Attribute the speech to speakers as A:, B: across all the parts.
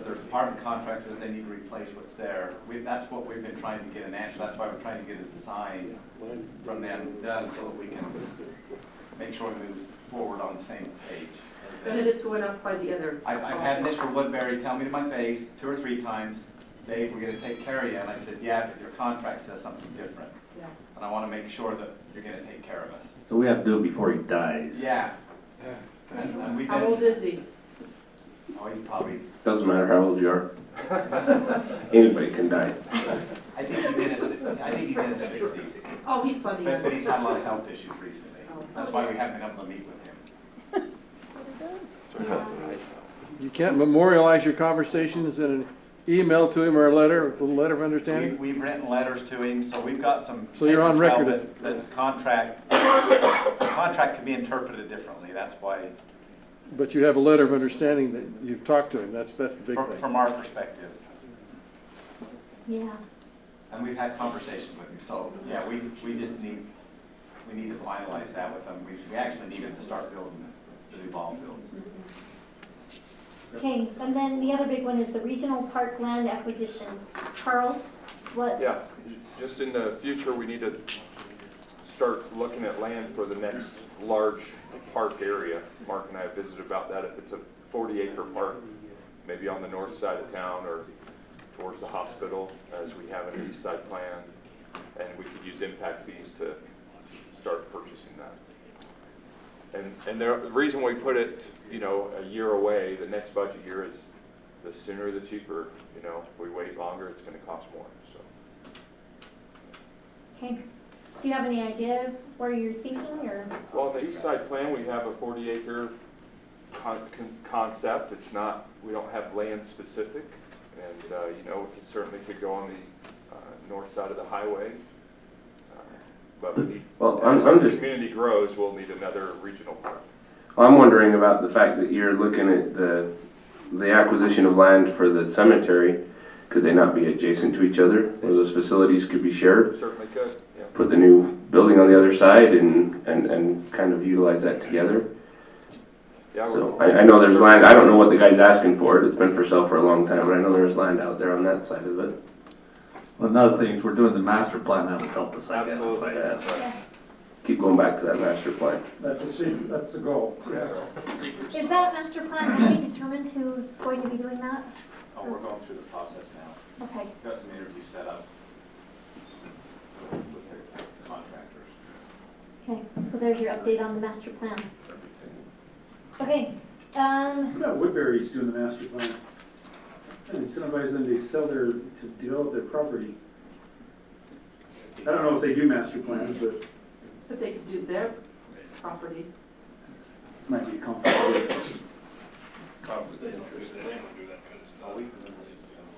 A: department contract says they need to replace what's there. We, that's what we've been trying to get an answer, that's why we're trying to get a design from them done so that we can make sure we move forward on the same page. as them.
B: And it is going up by the other.
A: I've, I've had Mr. Woodbury tell me to my face two or three times, Dave, we're gonna take care of you, and I said, yeah, but your contract says something different,
B: Yeah.
A: and I wanna make sure that you're gonna take care of us.
C: So we have to do it before he dies.
A: Yeah. And and we've
B: How old
A: been,
B: is he?
A: oh, he's probably,
D: Doesn't matter how old you are. Anybody can die.
A: I think he's in his, I think he's in his sixties,
B: Oh, he's plenty
A: but,
B: young.
A: but he's had a lot of health issues recently.
B: Oh.
A: That's why we haven't been able to meet with him.
E: You can't memorialize your conversations in an email to him or a letter, a letter of
A: We,
E: understanding?
A: we've written letters to him, so we've got some.
E: So you're on
A: paper trail
E: record.
A: that- That the contract, the contract can be interpreted differently, that's why,
E: But you have a letter of understanding that you've talked to him, that's, that's the big
A: fr-
E: thing.
A: from our perspective.
F: Yeah.
A: And we've had conversations with him, so, yeah, we, we just need, we need to finalize that with him. We, we actually need him to start building the new ball fields.
F: Okay, and then the other big one is the regional park land acquisition. Carl, what?
G: Yeah, just in the future, we need to start looking at land for the next large park area. Mark and I have visited about that, if it's a 40-acre park, maybe on the north side of town or towards the hospital, as we have an east side plan, and we could use impact fees to start purchasing that. And, and there- the reason we put it, you know, a year away, the next budget year is the sooner the cheaper, you know, if we wait longer, it's gonna cost more, so.
F: Okay. Do you have any idea where you're thinking or?
G: Well, on the east side plan, we have a forty acre con- con- concept, it's not, we don't have land specific. And, uh, you know, it certainly could go on the, uh, north side of the highway. Uh, But we need,
D: Well, I'm-
G: as
D: I'm
G: the
D: just-
G: community grows, we'll need another regional park.
D: I'm wondering about the fact that you're looking at the, the acquisition of land for the cemetery. Could they not be adjacent to each other? Where those facilities could be shared?
G: Certainly could, yeah.
D: Put the new building on the other side and, and, and kind of utilize that together?
G: Yeah,
D: So,
G: we're-
D: I, I know there's land, I don't know what the guy's asking for it, it's been for sale for a long time, but I know there's land out there on that side of it.
C: Well, another thing is we're doing the master plan, that'll help us identify
G: Absolutely.
C: that.
D: Keep going back to that master plan.
H: That's the secret, that's the goal.
F: Is that master plan, have they determined who's going to be doing that?
A: Oh, we're going through the process now.
F: Okay,
A: We've got some interviews set up with the contractors.
F: okay, so there's your update on the master plan. Okay, um,
H: Yeah, Woodbury's doing the master plan. And incentivize them to sell their, to develop their property. I don't know if they do master plans, but it
B: But they could do their property.
H: might be complicated.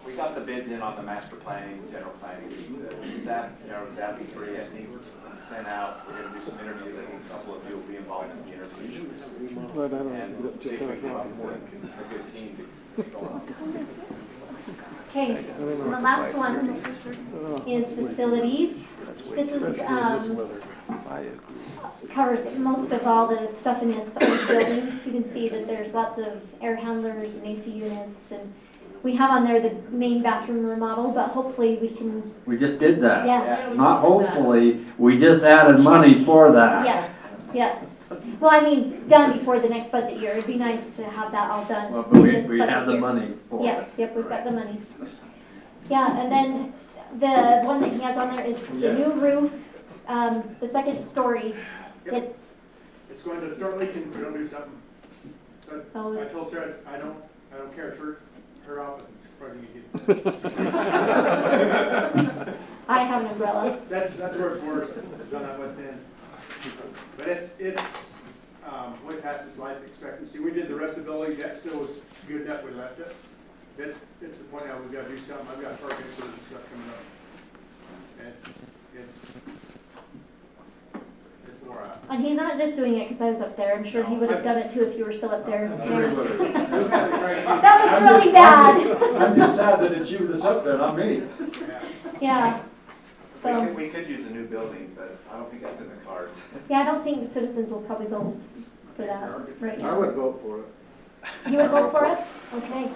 A: We got the bids in on the master planning, general planning, the staff, you know, that'd be three, I think, sent out. We're gonna do some interviews, I think a couple of you will be involved in the interviews.
E: No, no, no,
A: And see
E: just
A: if we
E: talk
A: can
E: about
A: come up
E: it.
A: with a good team to go on.
F: okay, and the last one is facilities. This is, um, covers most of all the stuff in this old building. You can see that there's lots of air handlers and AC units, and we have on there the main bathroom remodel, but hopefully we can,
C: We just did that.
F: yeah,
B: Yeah, we
C: Not
B: just did that.
C: hopefully, we just added money for that.
F: yes, yes. Well, I mean, done before the next budget year. It'd be nice to have that all done.
C: Well, but we,
F: this
C: we
F: budget
C: have the
F: year.
C: money for it.
F: Yes, yep, we've got the money. Yeah, and then the one that he has on there is the new roof, um, the second story. It's,
I: It's going to start leaking if we don't do something. So I
F: so,
I: told Sarah, I don't, I don't care if her, her office is probably gonna get,
F: I have an umbrella.
I: that's, that's where it's worse, is on that west end. But it's, it's, um, way past its life expectancy. We did the rest of the building, that still was good enough, we left it. This, it's the point now, we've gotta do something, I've got perkins and stuff coming up. And it's, it's, it's more out.
F: And he's not just doing it because I was up there. I'm sure he would have done it too if you were still up there. That was really bad.
E: I'm just sad that it's you that's up there, not me.
F: Yeah.
A: We
F: So,
A: could, we could use a new building, but I don't think that's in the cards.
F: yeah, I don't think citizens will probably vote for that right now.
E: vote for it.
F: You would vote for it? Okay.